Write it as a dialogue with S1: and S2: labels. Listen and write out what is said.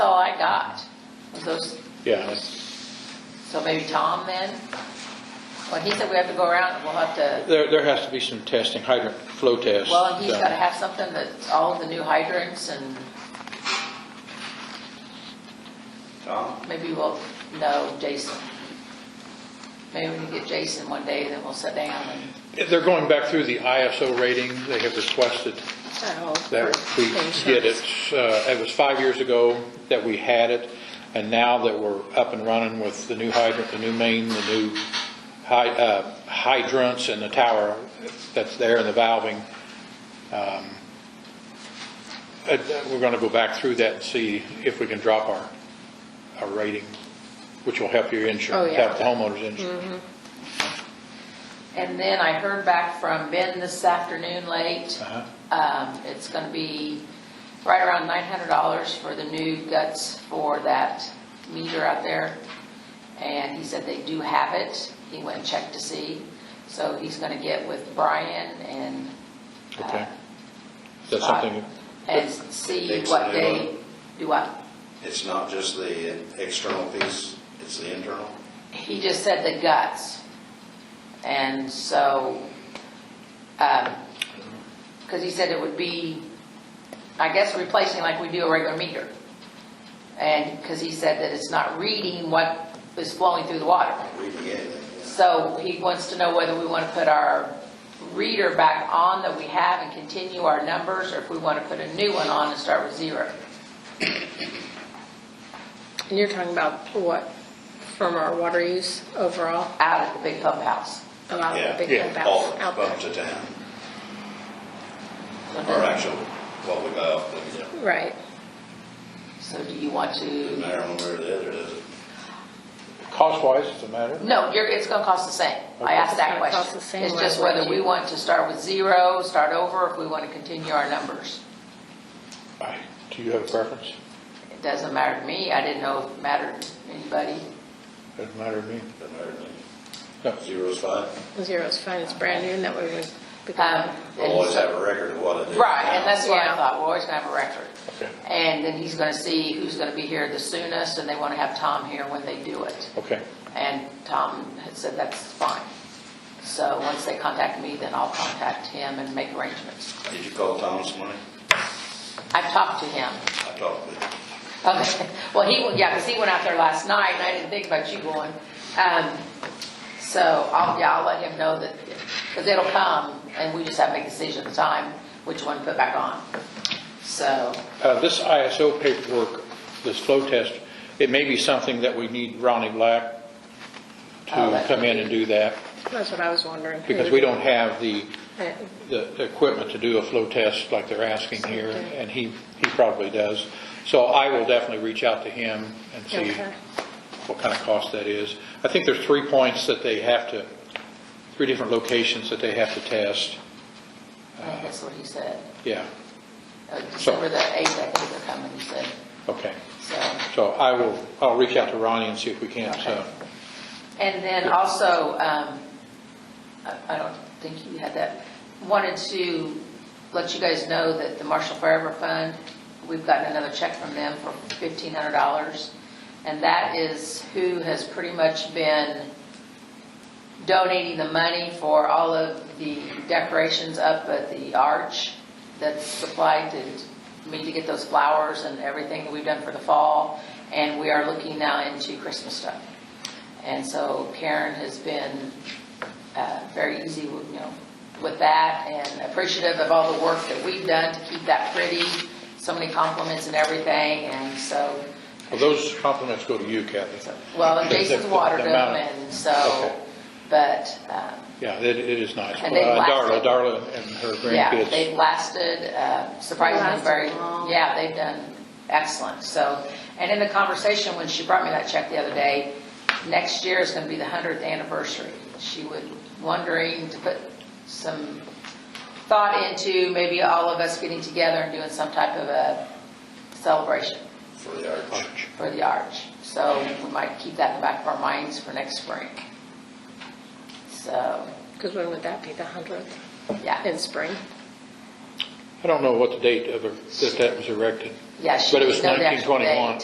S1: got. Was those,
S2: Yeah,
S1: so maybe Tom then? Well, he said we have to go around and we'll have to,
S2: there, there has to be some testing, hydrant flow tests.
S1: well, and he's
S2: done.
S1: gotta have something that's all the new hydrants and
S3: Tom?
S1: maybe we'll, no, Jason. Maybe we can get Jason one day, then we'll sit down and.
S2: They're going back through the ISO rating they have requested that we get it. Uh, It was five years ago that we had it, and now that we're up and running with the new hydrant, the new main, the new hy- uh, hydrants and the tower that's there and the valving, um, uh, we're going to go back through that and see if we can drop our, our rating, which will help your insurance,
S4: Oh, yeah.
S2: help the homeowner's insurance.
S1: And then I heard back from Ben this afternoon late.
S2: Uh-huh.
S1: Um, It's going to be right around $900 for the new guts for that meter out there. And he said they do have it. He went and checked to see. So he's going to get with Brian and,
S4: Mm-hmm.
S2: Okay. Is that something,
S1: and see
S3: Fix
S1: what
S3: it.
S1: they, do what?
S3: It's not just the external piece, it's the internal?
S1: He just said the guts. And so, because he said it would be, I guess, replacing like we do a regular meter. And, because he said that it's not reading what is flowing through the water.
S3: Reading anything,
S1: So he wants to know whether we want to put our reader back on that we have and continue our numbers, or if we want to put a new one on and start with zero.
S4: And you're talking about what, from our water use overall,
S1: Out at the big pump house.
S4: about
S3: Yeah,
S4: the
S2: yeah,
S4: big
S3: yeah.
S4: pump
S3: All
S4: out out
S3: up
S4: there?
S3: to town,
S1: So
S3: or
S1: does-
S3: actual, what we buy off the,
S4: Right.
S1: So do you want to?
S3: doesn't matter one way or the other, does it?
S2: cost-wise, does it matter?
S1: No, you're, it's gonna cost the same. I
S2: Okay.
S1: asked that
S4: It's gonna cost
S1: question.
S4: the same
S1: It's just
S4: whether
S1: whether we
S4: you-
S1: want to start with zero, start over, if we want to continue our numbers.
S2: I- Do you have a preference?
S1: It doesn't matter to me. I didn't know if it mattered to anybody.
S2: Doesn't matter to me.
S3: Doesn't matter to me.
S2: No.
S3: Zero's fine,
S4: Zero's fine, it's brand new, and that way we. we
S1: Um,
S4: can-
S3: we'll
S1: and
S3: always
S1: so-
S3: have a record of what it is.
S1: Right, and that's what I
S4: Yeah.
S1: thought. We're always gonna have a record.
S2: Okay.
S1: And then he's gonna see who's gonna be here the soonest, and they wanna have Tom here when they do it.
S2: Okay.
S1: And Tom had said that's fine. So once they contact me, then I'll contact him and make arrangements.
S3: Did you call Tom this morning?
S1: I've talked to him.
S3: I talked with him.
S1: Okay, well, he, yeah, because he went out there last night, and I didn't think about you going. Um, So, I'll, yeah, I'll let him know that, because it'll come, and we just have to make a decision at the time, which one to put back on. So,
S2: Uh, This ISO paperwork, this flow test, it may be something that we need Ronnie Black
S1: Oh,
S2: to
S1: that
S2: come
S1: could
S2: in
S1: be.
S2: and do that,
S4: That's what I was wondering. who
S2: because
S4: would
S2: we
S4: do
S2: don't have the,
S4: it.
S2: the the equipment to do a flow test like they're asking here,
S4: Okay.
S2: and he, he probably does. So I will definitely reach out to him and see
S4: Okay.
S2: what kind of cost that is. I think there's three points that they have to, three different locations that they have to test.
S1: I think that's what he said.
S2: Yeah,
S1: Uh, December the 8th, I think they're coming, he said,
S2: okay.
S1: so.
S2: So I will, I'll reach out to Ronnie and see if we can't, uh,
S1: And then also, um, I I don't think you had that, wanted to let you guys know that the Marshall Forever Fund, we've gotten another check from them for $1,500. And that is who has pretty much been donating the money for all of the decorations up at the arch that's supplied to me to get those flowers and everything that we've done for the fall. And we are looking now into Christmas stuff. And so Karen has been uh, very easy, with, you know, with that and appreciative of all the work that we've done to keep that pretty. So many compliments and everything, and so,
S2: well, those compliments go to you, Kathy.
S1: so- well, and Jason's watered them, and
S2: Okay.
S1: so, but, um,
S2: Yeah, it, it is nice.
S1: And they
S2: Uh, Darla,
S1: lasted.
S2: Darla and her
S1: yeah, they've
S2: grandkids.
S1: lasted uh, surprisingly
S4: lasted
S1: very,
S4: long.
S1: yeah, they've done excellent, so. And in the conversation, when she brought me that check the other day, next year is gonna be the hundredth anniversary. She was wondering to put some thought into maybe all of us getting together and doing some type of a celebration
S3: for the arch.
S1: for the arch. So we might keep that in the back of our minds for next spring. So,
S4: Cause when would that be, the hundredth,
S1: yeah,
S4: in spring?
S2: I don't know what the date of, her- that that was erected.
S1: yeah, she
S2: But it was
S1: didn't know the actual
S2: 1921.
S1: date.